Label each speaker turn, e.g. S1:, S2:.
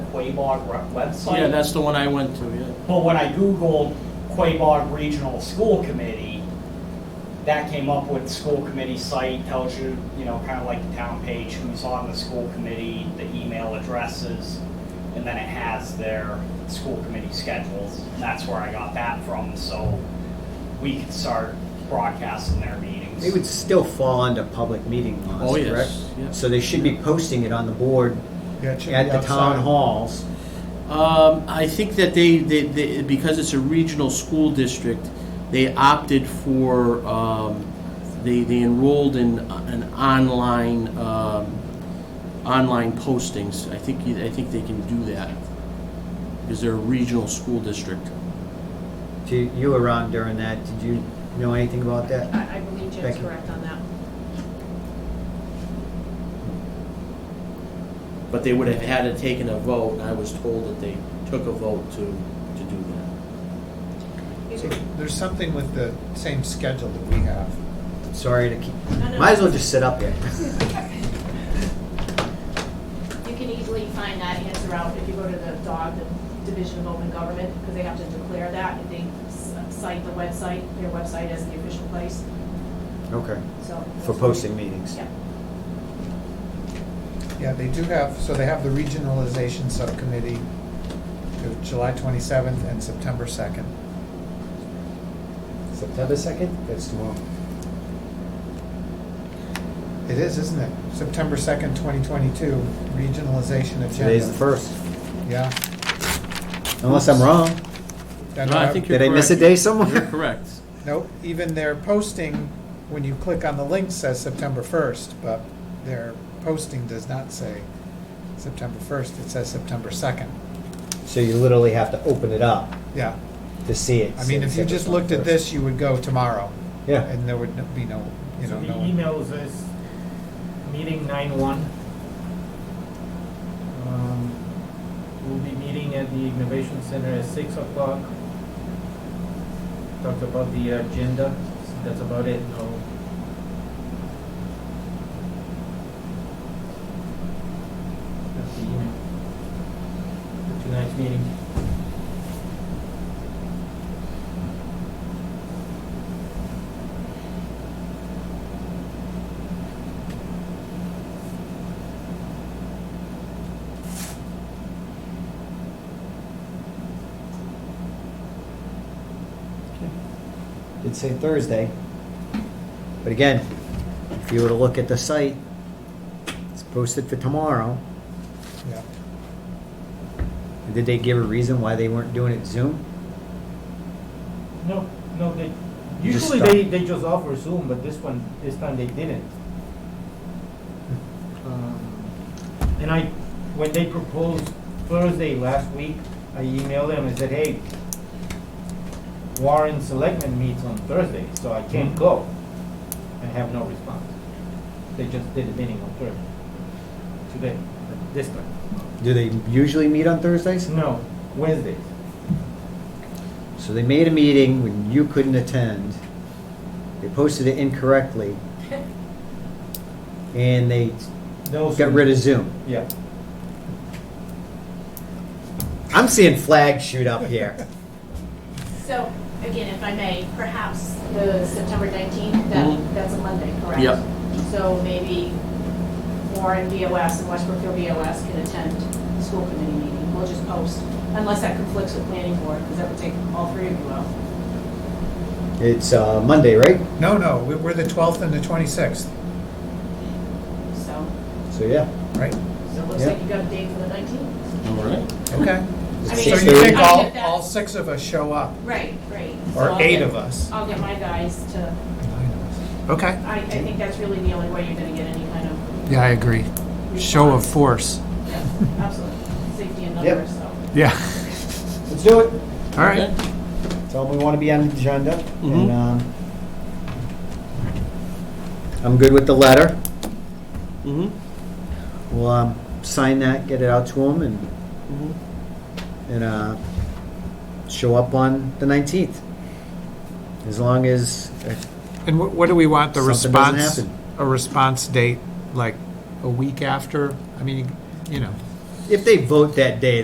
S1: Quabog re- website.
S2: Yeah, that's the one I went to, yeah.
S1: But when I Googled Quabog Regional School Committee, that came up with school committee site, tells you, you know, kind of like the town page, who's on the school committee, the email addresses, and then it has their school committee schedules. And that's where I got that from, so we could start broadcasting their meetings.
S3: They would still fall under public meeting laws,
S2: Oh, yes,
S3: correct?
S2: yeah.
S3: So they should be posting it on the board
S4: Yeah, it should
S3: at
S4: be
S3: the
S4: outside.
S3: town halls.
S2: Um, I think that they, they, they, because it's a regional school district, they opted for, um, they, they enrolled in an online, um, online postings. I think, you- I think they can do that, because they're a regional school district.
S3: Do you were around during that? Did you know anything about that?
S5: I, I believe Jim's
S3: Becky.
S5: correct on that.
S2: But they would have had to taken a vote, and I was told that they took a vote to, to do that.
S4: So There's something with the same schedule that we have.
S3: Sorry to keep.
S5: No, no.
S3: Might as well just sit up here.
S5: You can easily find that answer out if you go to the DOG, the Division of Open Government, because they have to declare that, and they s- cite the website, their website as the official place,
S3: Okay.
S5: so.
S3: For posting meetings.
S5: Yeah.
S4: Yeah, they do have, so they have the regionalization subcommittee to July 27th and September 2nd.
S3: September second? That's tomorrow.
S4: It is, isn't it? September 2nd, 2022, regionalization agenda.
S3: Today's the first.
S4: Yeah.
S3: Unless I'm wrong.
S4: That-
S2: No, I think you're
S3: Did I miss a
S2: correct.
S3: day somewhere?
S2: You're correct.
S4: Nope, even their posting, when you click on the link, says September 1st, but their posting does not say September 1st, it says September 2nd.
S3: So you literally have to open it up
S4: Yeah,
S3: to see it.
S4: I mean, if you just looked at this, you would go tomorrow,
S3: Yeah.
S4: and there would n- be no, you know,
S6: So
S4: no
S6: the
S4: one.
S6: email says, meeting nine one. Um, We'll be meeting at the Innovation Center at six o'clock. Talked about the agenda, that's about it, no. That's the email. For tonight's meeting.
S3: It'd say Thursday. But again, if you were to look at the site, it's posted for tomorrow.
S4: Yeah.
S3: Did they give a reason why they weren't doing it Zoom?
S6: No, no, they,
S3: Just
S6: usually
S3: stop.
S6: they, they just offer Zoom, but this one, this time they didn't. Um, And I, when they proposed Thursday last week, I emailed them and said, hey, Warren Selectmen meets on Thursday, so I
S3: Mm-hmm.
S6: can't go. I have no response. They just did a meeting on Thursday, today, this time.
S3: Do they usually meet on Thursdays?
S6: No, Wednesday.
S3: So they made a meeting when you couldn't attend. They posted it incorrectly. And they got rid of Zoom.
S6: Yeah.
S3: I'm seeing flags shoot up here.
S5: So, again, if I may, perhaps the September 19th,
S2: Mhm.
S5: that, that's a Monday, correct?
S2: Yep.
S5: So maybe Warren BOS and West Brookfield BOS can attend the school committee meeting. We'll just post, unless that conflicts with planning board, because that would take all three of you out.
S3: It's uh, Monday, right?
S4: No, no, we- we're the 12th and the 26th,
S5: So,
S3: So, yeah.
S4: right?
S5: so it looks
S3: Yeah.
S5: like you got a date for the 19th.
S2: All right.
S4: Okay. So
S5: I mean,
S4: you think
S5: I
S4: all,
S5: get that.
S4: all six of us show up,
S5: Right, right. So
S4: or
S5: I'll
S4: eight
S5: get-
S4: of us?
S5: I'll get my guys to,
S4: Okay.
S5: I, I think that's really the only way you're going to get any kind of.
S4: Yeah, I agree. Show of force.
S5: Yeah, Absolutely. Safety and
S3: Yep.
S5: numbers, so.
S4: Yeah.
S3: Let's do it.
S4: All right.
S2: Okay.
S3: Tell them we want to be on the agenda.
S2: Mhm.
S3: And um, I'm good with the letter.
S2: Mhm.
S3: We'll um, sign that, get it out to them, and,
S2: Mhm.
S3: and uh, show up on the 19th. As long as uh,
S4: And wh- what do we want, the
S3: Something doesn't
S4: response,
S3: happen.
S4: a response date, like a week after? I mean, you know.
S3: if they vote that day,